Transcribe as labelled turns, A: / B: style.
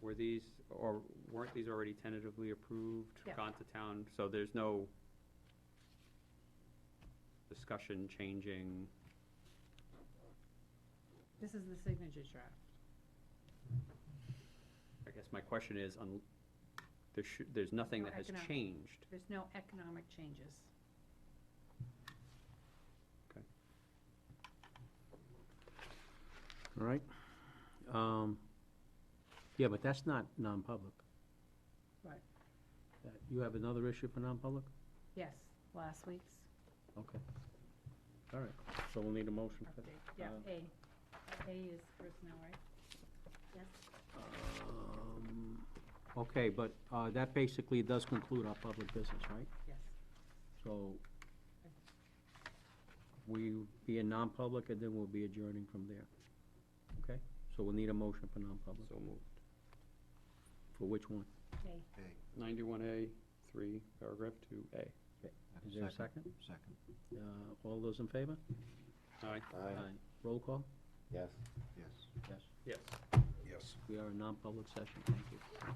A: Were these, or weren't these already tentatively approved?
B: Yeah.
A: Gone to town, so there's no discussion changing,
B: This is the signature draft.
A: I guess my question is, un, there should, there's nothing
B: No
A: that has
B: economic-
A: changed.
B: There's no economic changes.
C: All right? Um, Yeah, but that's not non-public.
B: Right.
C: That- You have another issue for non-public?
B: Yes, last week's
C: Okay. All right, so we'll need a motion for that.
B: update. Yeah,
C: Uh,
B: A. A is personnel, right? Yes.
C: Um, Okay, but uh, that basically does conclude our public business, right?
B: Yes.
C: So we be in non-public and then we'll be adjourning from there. Okay? So we'll need a motion for non-public.
A: So moved.
C: For which one?
B: A.
A: Ninety-one A, three, paragraph two A.
C: Is there a second?
D: Second.
C: Uh, All those in favor?
A: Aye.
C: Roll call?
D: Yes. Yes.
C: Yes.
A: Yes.
D: Yes.
C: We are in non-public session. Thank you.